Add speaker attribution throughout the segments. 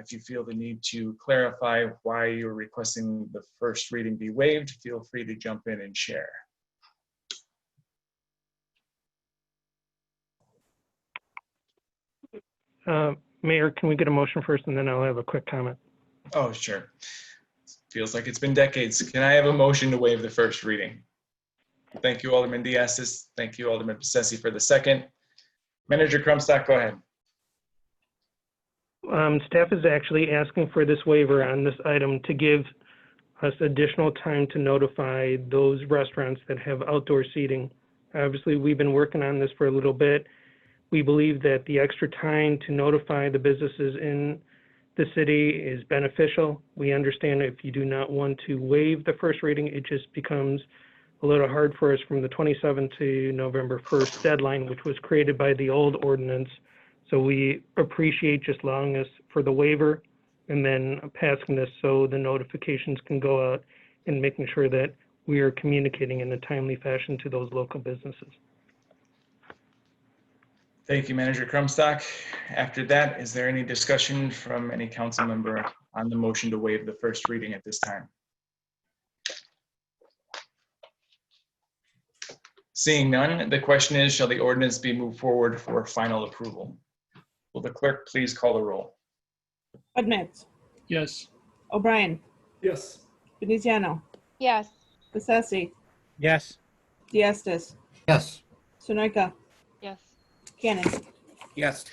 Speaker 1: If you feel the need to clarify why you're requesting the first reading be waived, feel free to jump in and share.
Speaker 2: Uh, Mayor, can we get a motion first, and then I'll have a quick comment?
Speaker 1: Oh, sure. Feels like it's been decades. Can I have a motion to waive the first reading? Thank you, Alderman Diastis. Thank you, Alderman Bessetti for the second. Manager Crumstock, go ahead.
Speaker 2: Um, Staff is actually asking for this waiver on this item to give us additional time to notify those restaurants that have outdoor seating. Obviously, we've been working on this for a little bit. We believe that the extra time to notify the businesses in the city is beneficial. We understand if you do not want to waive the first reading, it just becomes a little hard for us from the 27th to November 1st deadline, which was created by the old ordinance. So we appreciate just allowing us for the waiver and then passing this so the notifications can go out and making sure that we are communicating in a timely fashion to those local businesses.
Speaker 1: Thank you, Manager Crumstock. After that, is there any discussion from any council member on the motion to waive the first reading at this time? Seeing none, the question is, shall the ordinance be moved forward for final approval? Will the clerk please call the roll?
Speaker 3: Budmets.
Speaker 4: Yes.
Speaker 3: O'Brien.
Speaker 4: Yes.
Speaker 3: Veneziano.
Speaker 5: Yes.
Speaker 3: Bessesi.
Speaker 6: Yes.
Speaker 3: Diastis.
Speaker 6: Yes.
Speaker 3: Sunoika.
Speaker 5: Yes.
Speaker 3: Cannon.
Speaker 6: Yes.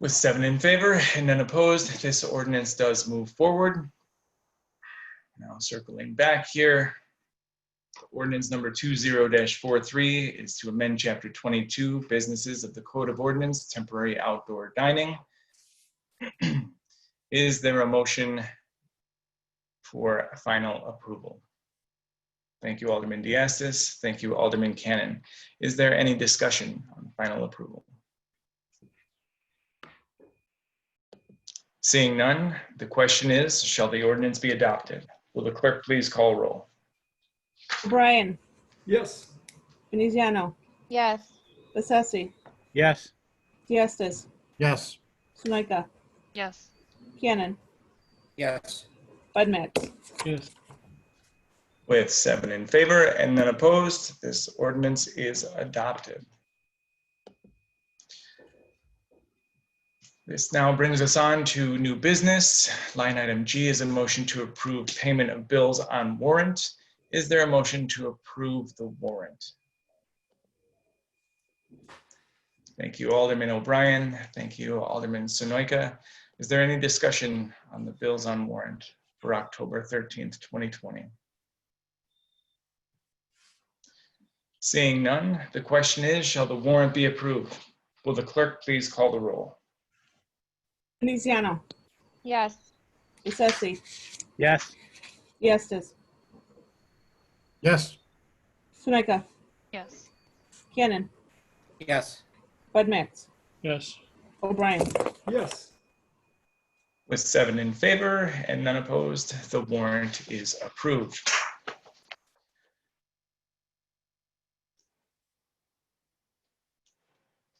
Speaker 1: With seven in favor and none opposed, this ordinance does move forward. Now circling back here. Ordinance number two zero 43 is to amend chapter twenty-two, businesses of the Code of Ordinance, temporary outdoor dining. Is there a motion for final approval? Thank you, Alderman Diastis. Thank you, Alderman Cannon. Is there any discussion on final approval? Seeing none, the question is, shall the ordinance be adopted? Will the clerk please call roll?
Speaker 3: O'Brien.
Speaker 4: Yes.
Speaker 3: Veneziano.
Speaker 5: Yes.
Speaker 3: Bessesi.
Speaker 6: Yes.
Speaker 3: Diastis.
Speaker 6: Yes.
Speaker 3: Sunoika.
Speaker 5: Yes.
Speaker 3: Cannon.
Speaker 6: Yes.
Speaker 3: Budmets.
Speaker 4: Yes.
Speaker 1: With seven in favor and none opposed, this ordinance is adopted. This now brings us on to new business. Line item G is a motion to approve payment of bills on warrant. Is there a motion to approve the warrant? Thank you, Alderman O'Brien. Thank you, Alderman Sunoika. Is there any discussion on the bills on warrant for October 13th, 2020? Seeing none, the question is, shall the warrant be approved? Will the clerk please call the roll?
Speaker 3: Veneziano.
Speaker 5: Yes.
Speaker 3: Bessesi.
Speaker 6: Yes.
Speaker 3: Diastis.
Speaker 6: Yes.
Speaker 3: Sunoika.
Speaker 5: Yes.
Speaker 3: Cannon.
Speaker 6: Yes.
Speaker 3: Budmets.
Speaker 4: Yes.
Speaker 3: O'Brien.
Speaker 4: Yes.
Speaker 1: With seven in favor and none opposed, the warrant is approved.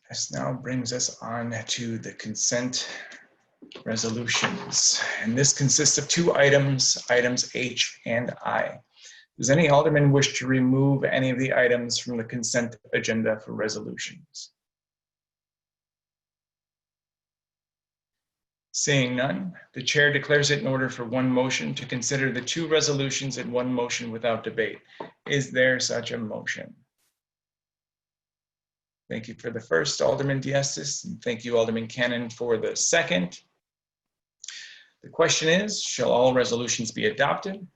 Speaker 1: This now brings us on to the consent resolutions. And this consists of two items, items H and I. Does any alderman wish to remove any of the items from the consent agenda for resolutions? Seeing none, the chair declares it in order for one motion to consider the two resolutions in one motion without debate. Is there such a motion? Thank you for the first, Alderman Diastis, and thank you, Alderman Cannon, for the second. The question is, shall all resolutions be adopted?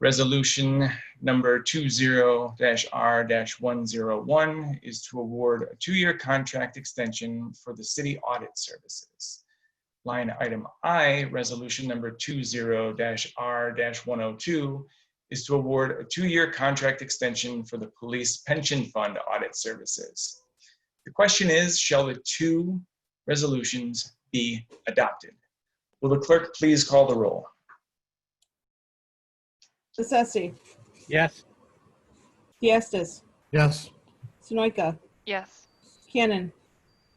Speaker 1: Resolution number 20-R-101 is to award a two-year contract extension for the city audit services line item I, resolution number 20-R-102, is to award a two-year contract extension for the police pension fund audit services. The question is, shall the two resolutions be adopted? Will the clerk please call the roll?
Speaker 3: Bessesi.
Speaker 6: Yes.
Speaker 3: Diastis.
Speaker 6: Yes.
Speaker 3: Sunoika.
Speaker 5: Yes.
Speaker 3: Cannon.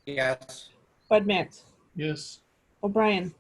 Speaker 6: Yes.
Speaker 3: Budmets.
Speaker 4: Yes.
Speaker 3: O'Brien.